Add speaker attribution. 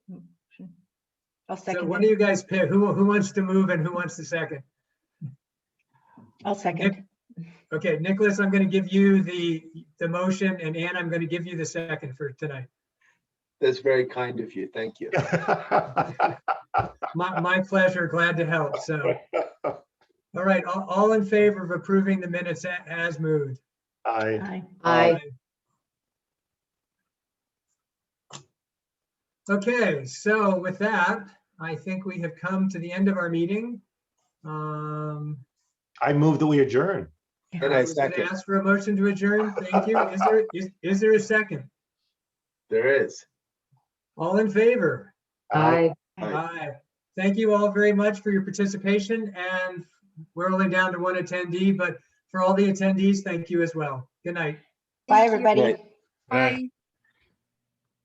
Speaker 1: I'll
Speaker 2: So
Speaker 1: second
Speaker 2: what do
Speaker 1: it.
Speaker 2: you guys pick? Who, who wants to move and who wants to second?
Speaker 1: I'll second.
Speaker 2: Okay, Nicholas, I'm going to give you the, the motion and Ann, I'm going to give you the second for tonight.
Speaker 3: That's very kind of you. Thank you.
Speaker 2: My, my pleasure, glad to help, so. All right, all, all in favor of approving the minutes a- as moved?
Speaker 4: I,
Speaker 1: Aye.
Speaker 5: Aye.
Speaker 2: Okay, so with that, I think we have come to the end of our meeting. Um,
Speaker 4: I move that we adjourn.
Speaker 3: And
Speaker 2: I
Speaker 3: I
Speaker 2: was gonna
Speaker 3: second.
Speaker 2: ask for a motion to adjourn. Thank you. Is there, is, is there a second?
Speaker 3: There is.
Speaker 2: All in favor?
Speaker 5: Aye.
Speaker 3: Aye.
Speaker 2: Aye. Thank you all very much for your participation and we're only down to one attendee, but for all the attendees, thank you as well. Good night.
Speaker 1: Bye, everybody.
Speaker 3: Right.
Speaker 6: Bye.